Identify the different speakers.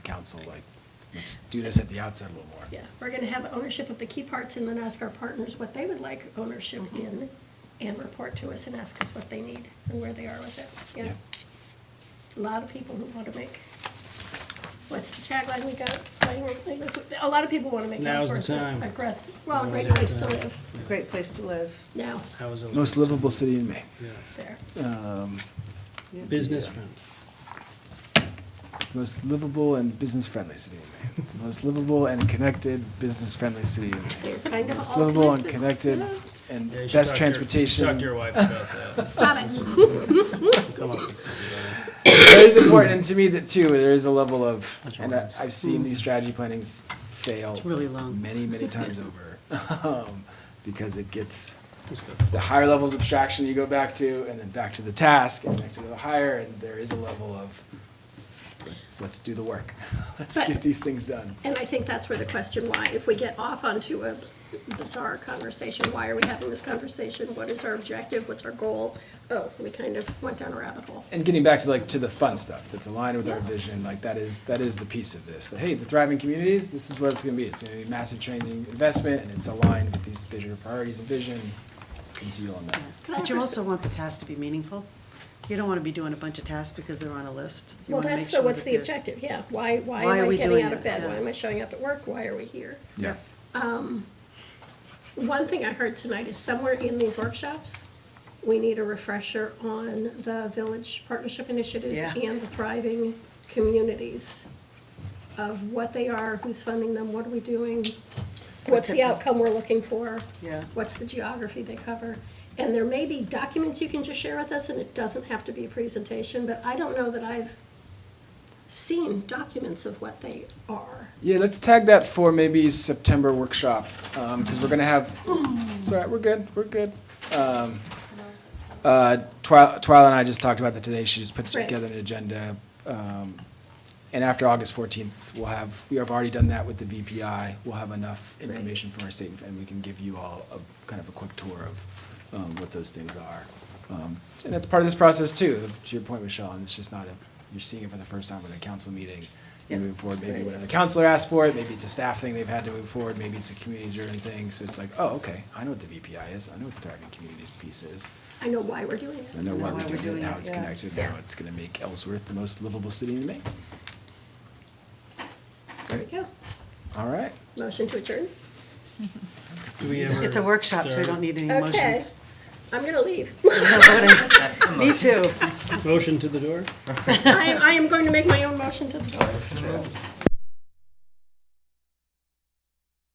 Speaker 1: council, like, let's do this at the outset a little more.
Speaker 2: Yeah, we're gonna have ownership of the key parts and then ask our partners what they would like ownership in and report to us and ask us what they need and where they are with it, yeah.
Speaker 1: Yeah.
Speaker 2: A lot of people who wanna make, what's the tagline we got? Playing with- playing with- A lot of people wanna make
Speaker 3: Now's
Speaker 2: Now's
Speaker 3: the time.
Speaker 2: aggress, well, great place to live
Speaker 4: Great place to live.
Speaker 2: now,
Speaker 3: That was a-
Speaker 1: Most livable city in Maine.
Speaker 3: yeah.
Speaker 2: there.
Speaker 3: Business
Speaker 1: Yeah.
Speaker 3: friend.
Speaker 1: Most livable and business-friendly city in Maine. The Most livable and connected, business-friendly city in Maine.
Speaker 2: They're kind of
Speaker 1: Most
Speaker 2: all
Speaker 1: livable and connected
Speaker 2: Yeah.
Speaker 1: and
Speaker 3: Yeah, you should
Speaker 1: best
Speaker 3: talk to your- Talk to
Speaker 1: transportation.
Speaker 3: your wife about that.
Speaker 2: Stop it.
Speaker 3: Come on.
Speaker 1: That is important, and to me that too, there is a level of,
Speaker 5: That's
Speaker 1: and
Speaker 5: right.
Speaker 1: I- I've seen these strategy plannings fail
Speaker 5: It's really long.
Speaker 1: many, many times over. um, Because it gets,
Speaker 3: Just go.
Speaker 1: the higher levels of abstraction you go back to, and then back to the task, and back to the higher, and there is a level of, let's do the work. Let's
Speaker 2: But-
Speaker 1: get these things done.
Speaker 2: And I think that's where the question why, if we get off onto a bizarre conversation, why are we having this conversation? What is our objective? What's our goal? Oh, we kind of went down a rabbit hole.
Speaker 1: And getting back to like, to the fun stuff that's aligned with our vision, like that is, that is the piece of this. Hey, the thriving communities, this is what it's gonna be. It's gonna be massive changing investment, and it's aligned with these bigger priorities and vision. And to you on that.
Speaker 2: Can I
Speaker 5: But you
Speaker 2: have a-
Speaker 5: also want the tasks to be meaningful. You don't want to be doing a bunch of tasks because they're on a list. You
Speaker 2: Well,
Speaker 5: wanna
Speaker 2: that's
Speaker 5: make
Speaker 2: the,
Speaker 5: sure
Speaker 2: what's
Speaker 5: that
Speaker 2: the
Speaker 5: there's-
Speaker 2: objective? Yeah, why, why
Speaker 5: Why are
Speaker 2: am I
Speaker 5: we
Speaker 2: getting
Speaker 5: doing
Speaker 2: out of
Speaker 5: it?
Speaker 2: bed?
Speaker 5: Yeah.
Speaker 2: Why am I showing up at work? Why are we here?
Speaker 1: Yeah.
Speaker 2: One thing I heard tonight is somewhere in these workshops, we need a refresher on the Village Partnership Initiative
Speaker 5: Yeah.
Speaker 2: and the thriving communities of what they are, who's funding them, what are we doing? What's the
Speaker 5: the-
Speaker 2: outcome we're looking for?
Speaker 5: Yeah.
Speaker 2: What's the geography they cover? And there may be documents you can just share with us, and it doesn't have to be a presentation, but I don't know that I've seen documents of what they are.
Speaker 1: Yeah, let's tag that for maybe September workshop, um, because we're gonna have, it's all right, we're good, we're good. Um, uh, Twyla Twyla and I just talked about that today, she just put
Speaker 2: Right.
Speaker 1: together an agenda. um, And after August fourteenth, we'll have, we have already done that with the VPI, we'll have enough
Speaker 2: Right.
Speaker 1: information from our state, and we can give you all a, kind of a quick tour of um, what those things are. Um, And that's part of this process too, to your point, Michelle, and it's just not, a you're seeing it for the first time with a council meeting,
Speaker 5: Yeah.
Speaker 1: moving forward, maybe whatever the counselor asked for it, maybe it's a staff thing they've had to move forward, maybe it's a community-driven thing, so it's like, oh, okay, I know what the VPI is, I know what the thriving communities piece is,
Speaker 2: I know why we're doing it.
Speaker 1: I know why
Speaker 5: Know
Speaker 1: we're doing it,
Speaker 5: doing
Speaker 1: now
Speaker 5: it,
Speaker 1: it's
Speaker 5: yeah.
Speaker 1: connected, now it's gonna make Ellsworth the most livable city in Maine.
Speaker 2: There we go.
Speaker 1: All right,
Speaker 2: Motion to adjourn?
Speaker 3: Do we ever?
Speaker 5: It's a workshop, so we don't need any
Speaker 2: Okay.
Speaker 5: motions.
Speaker 2: I'm gonna leave.
Speaker 5: There's no voting. Me too.
Speaker 3: Motion to the door?
Speaker 2: I, I am going to make my own motion to the door.